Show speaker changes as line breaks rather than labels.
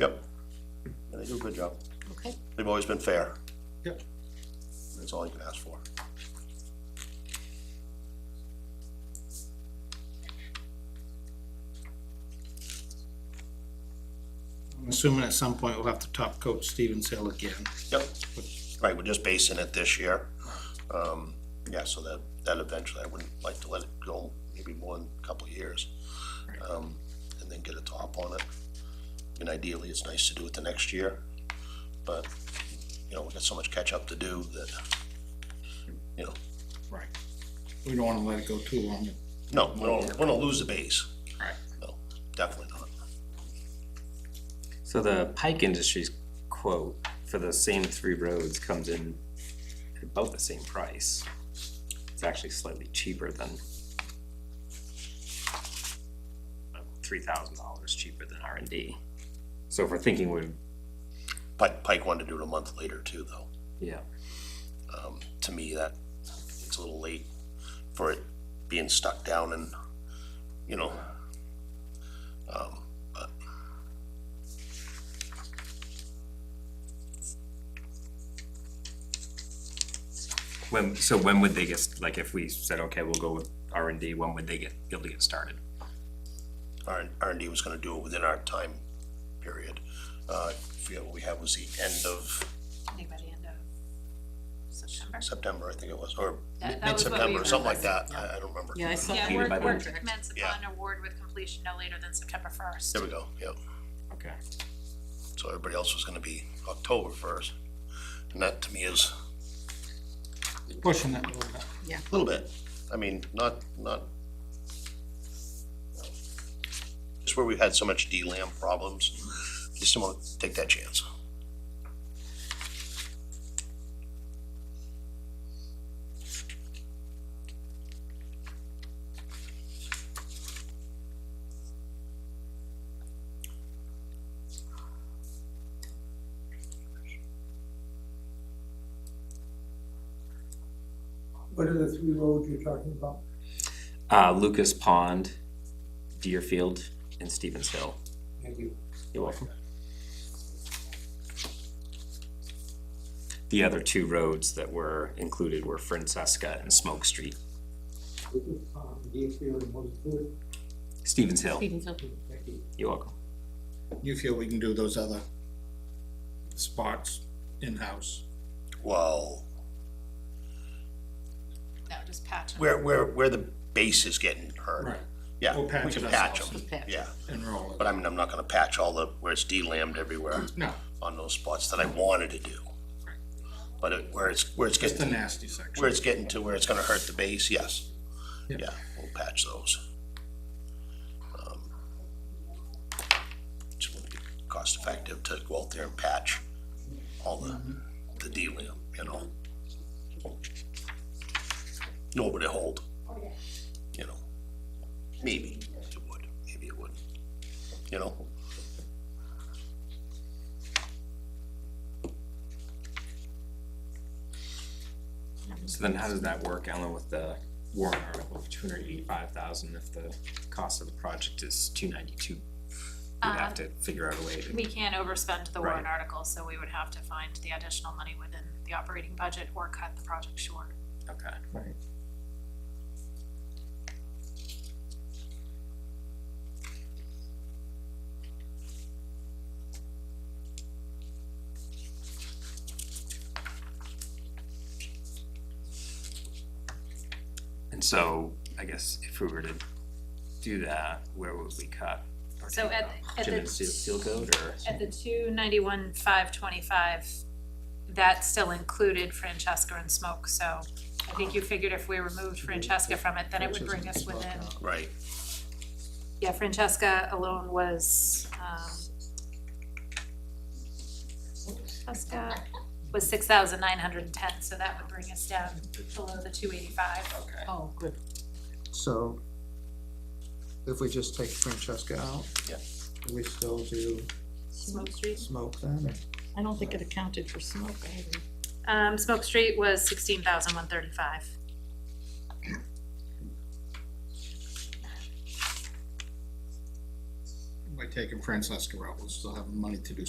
Yep. And they do a good job.
Okay,
They've always been fair.
Yep.
That's all you can ask for.
I'm assuming at some point we'll have to top coat Stevens Hill again.
Yep. Right, we're just basing it this year. Um, yeah, so that, that eventually, I wouldn't like to let it go maybe more than a couple of years. Um, and then get a top on it. And ideally, it's nice to do it the next year, but, you know, we've got so much catch up to do that, you know,
Right. We don't wanna let it go too long.
no, we don't, we don't lose the base.
Right.
No, definitely not.
So the Pike Industries quote for the same three roads comes in about the same price. It's actually slightly cheaper than three thousand dollars cheaper than R and D. So if we're thinking we're,
Pike, Pike wanted to do it a month later too, though.
yeah,
Um, to me, that, it's a little late for it being stuck down and, you know. Um, but.
when, so when would they get, like if we said, okay, we'll go with R and D, when would they get, be able to get started?
R, R and D was gonna do it within our time period. Uh, I forget what we had was the end of
anybody end of September?
September, I think it was, or
That- that was what we
mid-September, or something like
realized,
that. I, I don't remember.
Yeah, I saw
Yeah,
Completed by
work,
the
work to
contract.
commence
Yeah.
upon award with completion no later than September first.
There we go, yep.
Okay.
So everybody else was gonna be October first. And that to me is
Pushing that a little bit.
a little bit. I mean, not, not. Just where we've had so much DLAM problems, just don't want to take that chance.
What are the three roads you're talking about?
Uh, Lucas Pond, Deerfield, and Stevens Hill.
Thank you.
You're welcome. The other two roads that were included were Francesca and Smoke Street,
Lucas Pond, Deerfield, and what is it?
Stevens Hill.
Stevens Hill.
Thank you.
You're welcome.
You feel we can do those other spots in-house?
Well,
No, just patch them.
where, where, where the base is getting hurt. Yeah,
We'll
we
patch
can
it
patch
ourselves.
them,
Patch.
yeah.
And roll
But
it.
I mean, I'm not gonna patch all the, where it's DLAMed everywhere
No,
on those spots that I wanted to do. But it- where it's, where it's
just the
getting,
nasty section.
where it's getting to where it's gonna hurt the base, yes.
Yeah.
Yeah, we'll patch those. Um, Just wanna be cost effective to go out there and patch all the, the DLAM, you know? Nobody hold, you know? Maybe it would, maybe it would, you know?
So then how does that work, Ellen, with the warrant article of two hundred eighty-five thousand if the cost of the project is two ninety-two? We'd have
Um,
to figure out a way to,
We can't overspend the warrant
Right.
article, so we would have to find the additional money within the operating budget or cut the project short.
okay. Right. And so, I guess if we were to do that, where would we cut? Or
So
take
at-
off?
at
Jim
the-
and Steel, Steel Code or?
At the two ninety-one, five twenty-five, that still included Francesca and Smoke, so I think you figured if we removed Francesca from it, then it would bring us within
Right.
Yeah, Francesca alone was, um, Francesca was six thousand nine hundred and ten, so that would bring us down below the two eighty-five.
Okay.
Oh, good.
So if we just take Francesca out?
Yeah.
do We still do
Smoke Street?
smoke then? or-
I don't think it accounted for smoke, I haven't.
Um, Smoke Street was sixteen thousand one thirty-five.
by taking Francesca out, we'll still have money to do